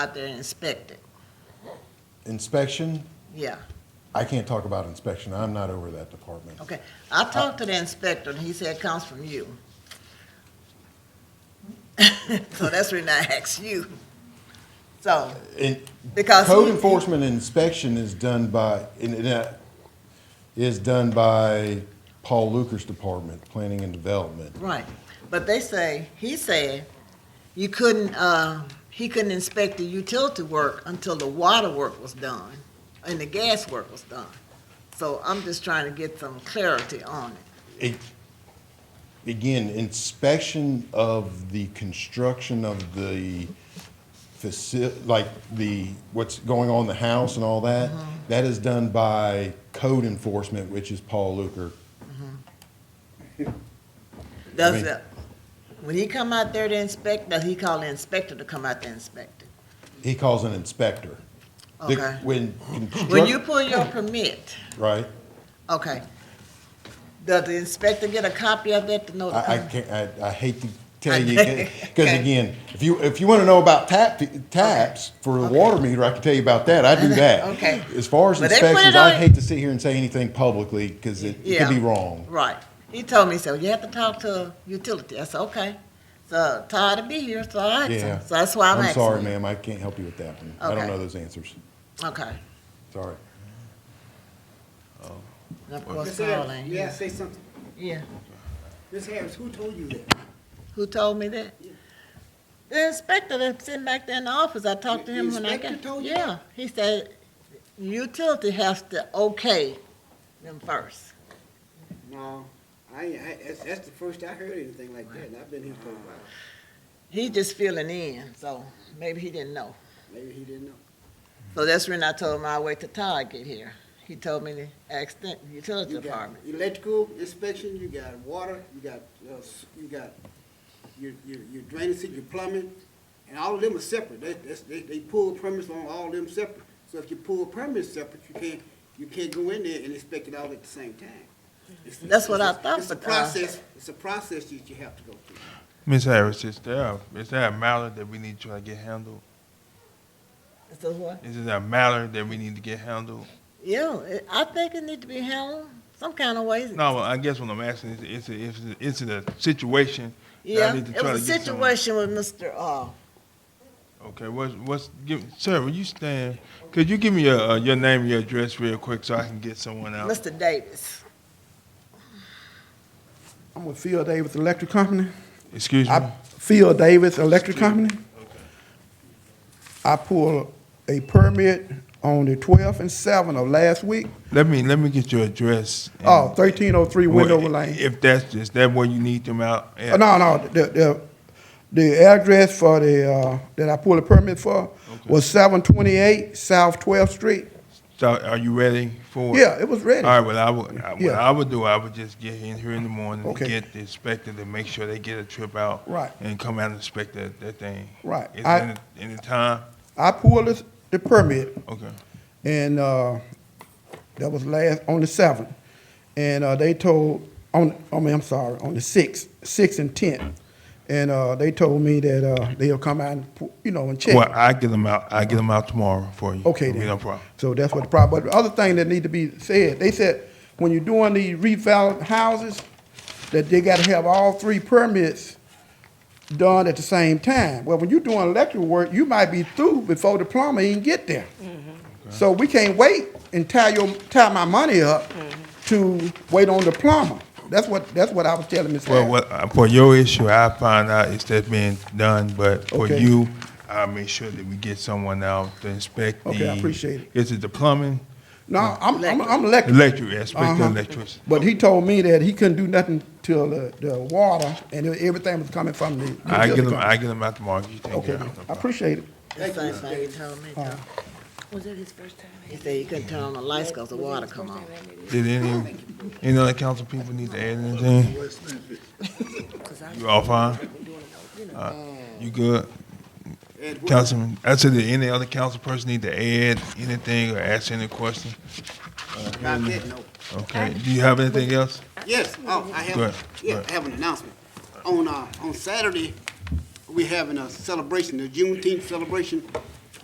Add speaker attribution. Speaker 1: out there and inspect it.
Speaker 2: Inspection,
Speaker 1: Yeah,
Speaker 2: I can't talk about inspection. I'm not over that department.
Speaker 1: okay. I talked to the inspector, and he said it comes from you. So that's the reason I asked you. So,
Speaker 2: And
Speaker 1: Because
Speaker 2: code
Speaker 1: he-
Speaker 2: enforcement and inspection is done by, and it, uh, is done by Paul Luker's department, planning and development.
Speaker 1: right, but they say, he said, you couldn't, uh, he couldn't inspect the utility work until the water work was done, and the gas work was done. So I'm just trying to get some clarity on it.
Speaker 2: It, again, inspection of the construction of the faci- like the, what's going on in the house and all that,
Speaker 1: Mm-hmm.
Speaker 2: that is done by code enforcement, which is Paul Luker.
Speaker 1: Does
Speaker 2: mean-
Speaker 1: it, when he come out there to inspect, does he call the inspector to come out there and inspect it?
Speaker 2: He calls an inspector. The-
Speaker 1: Okay.
Speaker 2: When
Speaker 1: When you pull
Speaker 2: construct,
Speaker 1: your permit,
Speaker 2: right?
Speaker 1: okay, does the inspector get a copy of that to know?
Speaker 2: I, I
Speaker 1: the
Speaker 2: can't, I, I hate to tell you,
Speaker 1: Okay.
Speaker 2: because again, if you, if you want to know about tap, taps for the water meter, I can tell you about that. I do that.
Speaker 1: Okay.
Speaker 2: As far as
Speaker 1: But they put it
Speaker 2: inspections, I
Speaker 1: on-
Speaker 2: hate to sit here and say anything publicly because it it could be
Speaker 1: Yeah.
Speaker 2: wrong.
Speaker 1: Right. He told me, so you have to talk to utility. I said, okay. So Todd to be here, so I asked
Speaker 2: Yeah.
Speaker 1: him. So that's why I'm asking.
Speaker 2: I'm sorry,
Speaker 1: you.
Speaker 2: ma'am. I can't help you with that one. I don't
Speaker 1: Okay.
Speaker 2: know those answers.
Speaker 1: Okay.
Speaker 2: Sorry.
Speaker 1: And Of course,
Speaker 3: Ms.
Speaker 1: Paul
Speaker 3: Harris,
Speaker 1: ain't
Speaker 3: may I
Speaker 1: here.
Speaker 3: say something?
Speaker 1: Yeah.
Speaker 3: Ms. Harris, who told you that?
Speaker 1: Who told me that? The inspector that's sitting back there in the office, I talked to
Speaker 3: The
Speaker 1: him when I
Speaker 3: inspector
Speaker 1: got.
Speaker 3: told you
Speaker 1: Yeah, he said, utility has to okay them first.
Speaker 3: No, I, I, that's, that's the first I heard anything like that, and I've been here for a while.
Speaker 1: He just feeling in, so maybe he didn't know.
Speaker 3: Maybe he didn't know.
Speaker 1: So that's when I told him I wait till Todd get here. He told me to ask the utility
Speaker 3: You got
Speaker 1: department.
Speaker 3: electrical inspection, you got water, you got, uh, s- you got your, your, your drainage, your plumbing, and all of them are separate. They, that's, they, they pull permits on all of them separate. So if you pull permits separate, you can't, you can't go in there and inspect it all at the same time. It's-
Speaker 1: That's what I
Speaker 3: it's-
Speaker 1: thought,
Speaker 3: It's a
Speaker 1: but, uh,
Speaker 3: process, it's a process that you have to go through.
Speaker 4: Ms. Harris, is there a, is there a matter that we need to try to get handled?
Speaker 1: So what?
Speaker 4: Is there a matter that we need to get handled?
Speaker 1: Yeah, it- I think it need to be handled some kind of way.
Speaker 4: No, I guess what I'm asking is, is it, is it, is it a situation? that I
Speaker 1: Yeah,
Speaker 4: need to
Speaker 1: it
Speaker 4: try
Speaker 1: was a
Speaker 4: to get some-
Speaker 1: situation with Mr. Uh,
Speaker 4: Okay, what's, what's, give, sir, will you stand? Could you give me your, uh, your name and your address real quick so I can get someone out?
Speaker 1: Mr. Davis.
Speaker 5: I'm with Phil Davis Electric Company.
Speaker 4: Excuse me?
Speaker 5: I, Phil Davis Electric Company. I pulled a permit on the twelfth and seventh of last week.
Speaker 4: Let me, let me get your address. and-
Speaker 5: Oh, 1303
Speaker 4: Well,
Speaker 5: Windover Lane.
Speaker 4: If that's, is that where you need them out?
Speaker 5: Uh, No, no, the, the, the address for the, uh, that I pulled a permit for was seven twenty-eight South Twelfth Street.
Speaker 4: So are you ready for? it?
Speaker 5: Yeah, it was ready.
Speaker 4: All right, well, I would, I- what
Speaker 5: Yeah.
Speaker 4: I would do, I would just get in here in the morning,
Speaker 5: Okay.
Speaker 4: get the inspector to make sure they get a trip out.
Speaker 5: Right.
Speaker 4: And come out and inspect that, that thing.
Speaker 5: Right.
Speaker 4: Is
Speaker 5: I-
Speaker 4: it in the time?
Speaker 5: I pulled this, the permit
Speaker 4: Okay,
Speaker 5: and uh, that was last on the seventh. And uh, they told on I mean I'm sorry on the sixth, sixth and tenth, and uh, they told me that uh, they'll come out and pu- you know and check.
Speaker 4: well, I get them out, I get them out tomorrow for you.
Speaker 5: Okay
Speaker 4: It'll be
Speaker 5: then.
Speaker 4: No problem.
Speaker 5: So that's what the problem. But the other thing that need to be said, they said when you're doing the reval houses, that they got to have all three permits done at the same time. Well, when you're doing electrical work, you might be through before the plumber even get there.
Speaker 4: Mm-hmm.
Speaker 5: So we can't wait and tie your tie my money up
Speaker 4: Mm-hmm.
Speaker 5: to wait on the plumber. That's what that's what I was telling Ms.
Speaker 4: Well,
Speaker 5: Harris.
Speaker 4: what, uh, for your issue, I find out it's that being done, but for
Speaker 5: Okay.
Speaker 4: you, I'll make sure that we get someone out to inspect the.
Speaker 5: Okay, I appreciate it.
Speaker 4: Is it the plumbing?
Speaker 5: no, I'm, I'm I'm electric.
Speaker 4: Electric, inspect the
Speaker 5: Uh-huh.
Speaker 4: electrics.
Speaker 5: But he told me that he couldn't do nothing till the, the water and everything was coming from the.
Speaker 4: I get them,
Speaker 5: company.
Speaker 4: I get them out tomorrow, you take
Speaker 5: Okay,
Speaker 4: care of it. No
Speaker 5: I
Speaker 4: problem.
Speaker 5: appreciate it.
Speaker 1: That's the same thing he told me. though.
Speaker 6: Was that his first time?
Speaker 1: He said he couldn't turn on the lights because the water come on.
Speaker 4: Did any, any other council people need to add anything? You all fine? Uh, You good?
Speaker 3: And what-
Speaker 4: Councilman, I said, did any other council person need to add anything or ask any question?
Speaker 3: Not that, no.
Speaker 4: Okay, do you have anything else?
Speaker 3: Yes, oh, I
Speaker 4: Go
Speaker 3: have,
Speaker 4: ahead, go
Speaker 3: yeah,
Speaker 4: ahead.
Speaker 3: I have an announcement. On, uh, on Saturday, we having a celebration, the Juneteenth celebration